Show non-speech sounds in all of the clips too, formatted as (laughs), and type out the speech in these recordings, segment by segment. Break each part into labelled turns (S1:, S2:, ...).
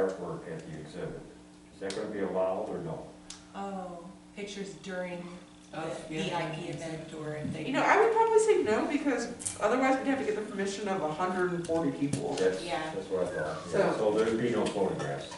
S1: artwork at the exhibit. Is that gonna be allowed or no?
S2: Oh, pictures during
S3: Of,
S4: Oh,
S2: the
S3: Oh, yeah.
S2: VIP event or if they.
S3: You know, I would probably say no, because otherwise we'd have to get the permission of hundred and forty people.
S1: That's,
S2: Yeah.
S1: that's what I thought. Yeah, So there'd be no photographs.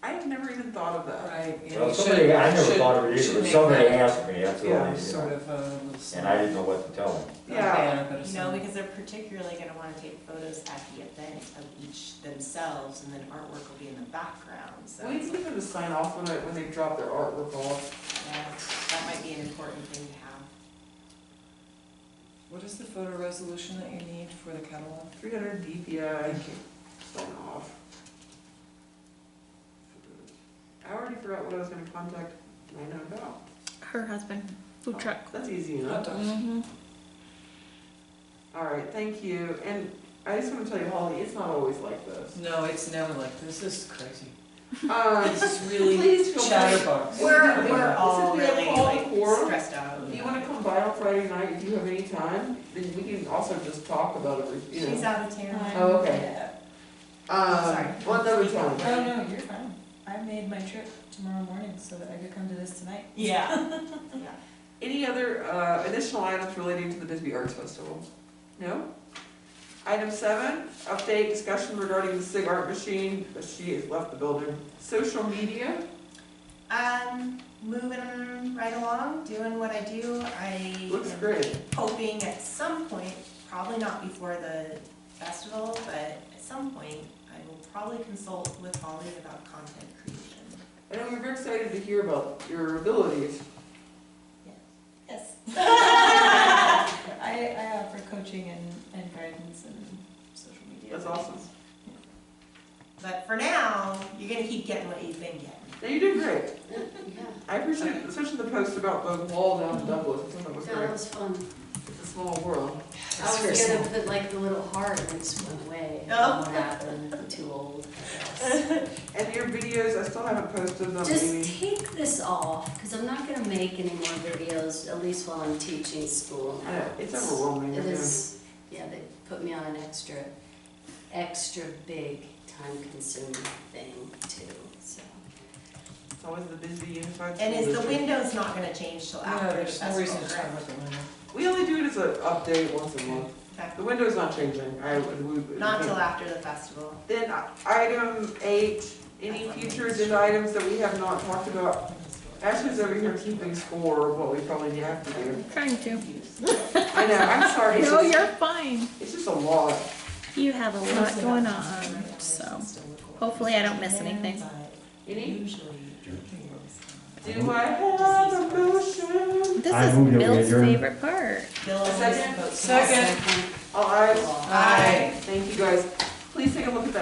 S3: I have never even thought of that.
S4: Right. yeah,
S1: Well,
S4: you
S1: somebody,
S4: should-
S1: I never
S4: should-
S1: thought of it
S4: should
S1: either, but
S4: make
S1: somebody
S4: that
S1: asked me, that's what I, you
S4: Sort
S1: know,
S4: of uh, a little.
S1: and I didn't know what to tell them.
S3: Yeah.
S4: banner, but a
S2: You know,
S4: sign.
S2: because they're particularly gonna wanna take photos at the event of each themselves and then artwork will be in the background, so.
S3: We need them to sign off when I, when they drop their artwork off.
S2: yeah, That might be an important thing to have.
S4: What is the photo resolution that you need for the catalog?
S3: Three hundred DPI,
S4: Thank you.
S3: sign off. I already forgot what I was gonna contact Lana about.
S5: her husband, food truck.
S3: That's easy
S4: Hot
S3: enough.
S4: dogs.
S5: Mm-hmm.
S3: All right, thank you. And I just wanna tell you, Holly, it's not always like this.
S4: No, it's never like, this This is crazy.
S3: Um,
S4: This is really
S3: please feel free.
S4: chatterbox.
S3: We're- we're
S4: Yeah.
S3: all really, like,
S2: stressed out.
S3: If you wanna come by on Friday night, if you have any time, then we can also just talk about everything.
S2: She's out of town.
S3: Oh, okay.
S2: Yeah.
S3: Um,
S2: Sorry.
S3: Well, another time.
S2: Oh,
S4: no, you're fine. I made my trip tomorrow morning so that I could come to this tonight.
S2: Yeah.
S3: Any other uh, additional items relating to the Bisbee Arts Festival? No? Item seven, update discussion regarding the SIG art machine, but she has left the building. Social media,
S2: Um, moving right along, doing what I do, I.
S3: looks
S2: am
S3: great.
S2: hoping at some point, probably not before the festival, but at some point, I will probably consult with Holly about content creation.
S3: And we were excited to hear about your abilities.
S2: (laughs)
S6: Yes. (laughs) I, I offer coaching and, and guidance and social media.
S3: That's awesome.
S2: But for now, you're gonna keep getting what you've been getting.
S3: Now, you did great. I appreciate, especially the post about the wall down in Douglas, I thought that was
S7: That
S3: great.
S7: was fun.
S3: It's a small world.
S7: I was gonna put like the little heart and it just went away. I
S3: Oh.
S7: don't know What happened? Too old,
S3: (laughs)
S7: I guess.
S3: And your videos, I still haven't posted them, Amy.
S7: Just take this off, because I'm not gonna make any more videos, at least while I'm teaching school
S3: I
S7: now.
S3: know, it's overwhelming.
S7: It
S3: isn't it?
S7: is, yeah, they put me on an extra, extra big time consuming thing too, so.
S3: It's always the busy
S2: And
S3: unified. school
S2: is the
S3: district.
S2: window's not gonna change till
S4: No,
S2: after the
S4: there's no reason
S2: festival,
S4: to talk
S2: correct?
S4: about the window.
S3: We only do it as an update once a month.
S2: Okay.
S3: The window's not changing. I would. we-
S2: Not till after the festival.
S3: Then uh, item eight, any future agenda items that we have not talked about? Ashley's over here keeping score of what we probably have to do.
S5: Trying to.
S3: I know, I'm sorry. it's
S5: (laughs) No,
S3: just-
S5: you're fine.
S3: It's just a lot.
S5: You have a lot going on, so hopefully I don't miss anything.
S3: Any?
S2: Usually.
S3: Do I have a motion?
S5: This
S1: I
S5: is
S1: move that we
S5: Bill's
S1: adjourn.
S5: favorite part.
S2: Bill always
S3: Second?
S2: votes no.
S4: Second.
S3: All eyes.
S7: Well,
S4: Aye.
S3: Thank you, guys. Please take a look at that.